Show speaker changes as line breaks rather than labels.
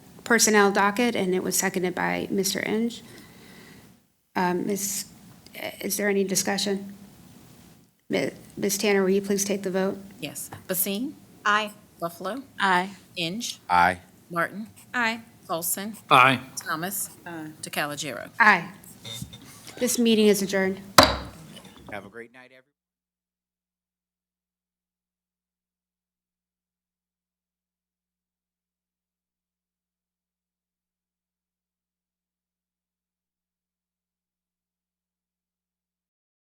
personnel docket, and it was seconded by Mr. Inge. Um, Ms., is there any discussion? Mi- Ms. Tanner, will you please take the vote?
Yes. Basine? Aye. Buffalo?
Aye.
Inge?
Aye.
Martin?
Aye.
Olson?
Aye.
Thomas? Aye. DeCalagero.
Aye. This meeting is adjourned.
Have a great night, everyone.